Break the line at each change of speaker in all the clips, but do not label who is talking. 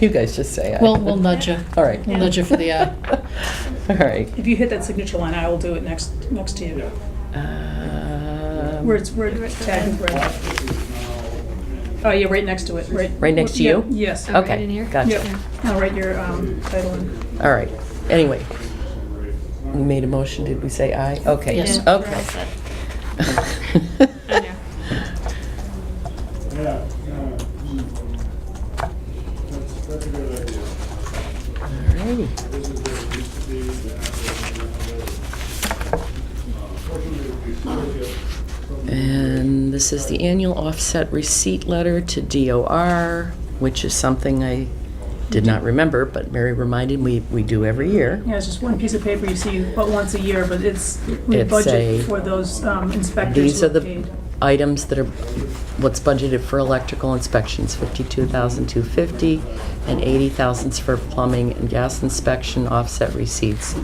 You guys just say aye.
We'll, we'll nudge you.
All right.
We'll nudge you for the uh, aye.
All right.
If you hit that signature line, I will do it next, next to you.
Um,
Where it's, where it's tagged with red. Oh, yeah, right next to it, right.
Right next to
yeah,
you? Oh,
Yes.
Okay.
Right in here?
gotcha.
Yep. I'll write your um, title in.
All right. Anyway, we made a motion. Did we say aye? Okay.
Yes.
Yeah, we're all set. I
Okay.
know.
Yeah, yeah. That's, that's a good idea.
Alrighty.
This is where it used to be, the Fortunately, we still get from the-
And this is the annual offset receipt letter to DOR, which is something I did not remember, but Mary reminded me we do every year.
Yeah, it's just one piece of paper you see but once a year, but it's, we
It's a-
budget for those um, inspectors
These
who
are
are
the
paid.
items that are, what's budgeted for electrical inspections, 52,250, and 80,000 for plumbing and gas inspection offset receipts.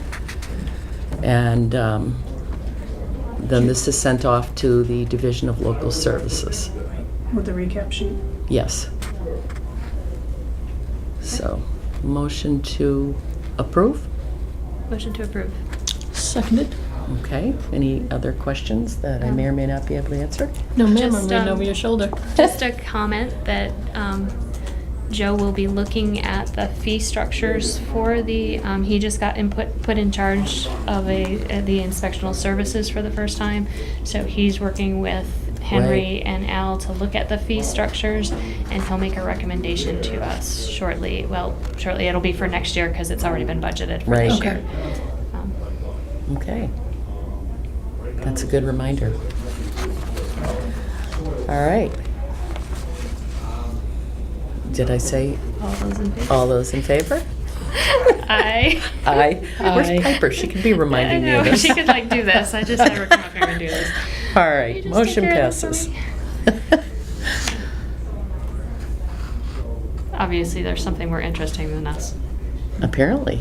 And um, then this is sent off to the Division of Local Services.
With the recap sheet.
Yes. So, motion to approve?
Motion to approve.
Seconded.
Okay. Any other questions that I may or may not be able to answer?
No, ma'am, I'm
Just,
reading
um,
over your shoulder.
Just a comment that um, Joe will be looking at the fee structures for the, um, he just got input, put in charge of a, uh, the inspectional services for the first time. So he's working with Henry
Right.
and Al to look at the fee structures and he'll make a recommendation to us shortly. Well, shortly, it'll be for next year because it's already been budgeted for
Right.
this
Okay.
year. Um,
Okay. That's a good reminder. All right. Did I say
All those in favor?
all those in favor?
Aye.
Aye.
Aye.
Where's Piper? She can be reminding me
I
of
know,
this.
she could like do this. I just never come up here and do this.
All
You
right,
just
motion
take care of this for
passes.
me? Obviously, there's something more interesting than us.
Apparently.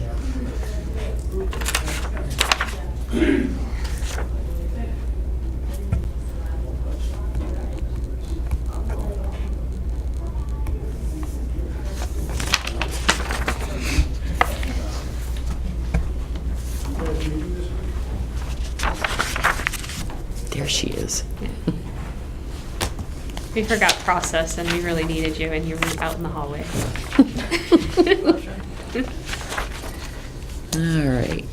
There she is.
We forgot process, and we really needed you, and you were out in the hallway.
All right.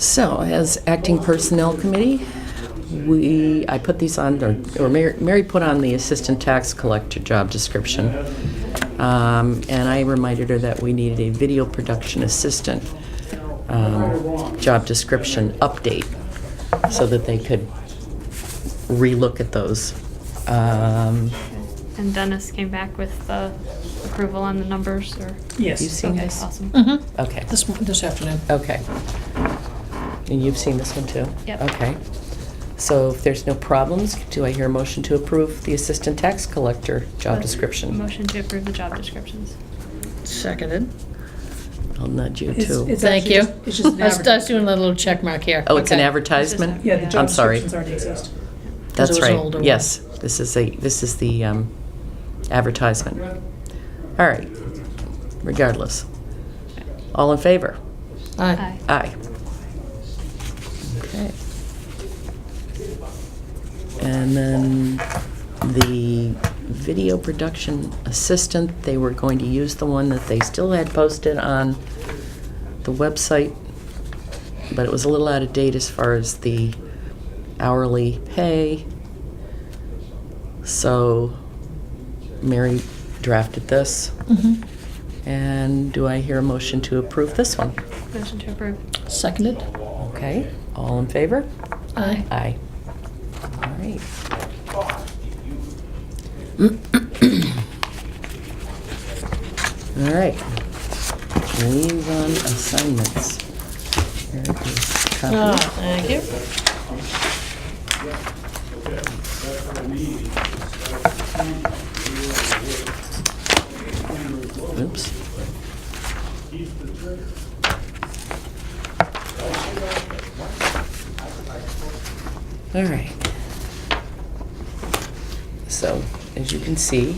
So, as acting personnel committee, we, I put these on, or- or Mary Mary put on the assistant tax collector job description. Um, And I reminded her that we needed a video production assistant um, job description update so that they could relook at those. Um,
and Dennis came back with the approval on the numbers, or
You
Yes.
see
okay,
guys?
awesome.
Mm-hmm.
Okay.
This, this afternoon.
Okay. And you've seen this one too?
Yep.
Okay. So if there's no problems, do I hear a motion to approve the assistant tax collector job description?
Uh, Motion to approve the job descriptions.
Seconded.
I'll nudge you
It's-
too.
it's
Thank
actually
you.
just- It's just an
I was- I was
advertisement.
doing a little check mark here.
Oh, it's an
Okay.
advertisement?
It's
Yeah, the job
I'm sorry.
descriptions already exist.
Because it
That's
was an
right.
older one.
Yes, this is a, this is the um, advertisement. All right, regardless. All in favor?
Aye.
Aye.
Aye. Okay. And then the video production assistant, they were going to use the one that they still had posted on the website, but it was a little out of date as far as the hourly pay. So Mary drafted this,
Mhm.
and do I hear a motion to approve this one?
Motion to approve.
Seconded.
Okay, all in favor?
Aye.
Aye. All right. All right. Liaison assignments. There it is.
Oh,
Copy.
thank you.
Oops. All right. So as you can see,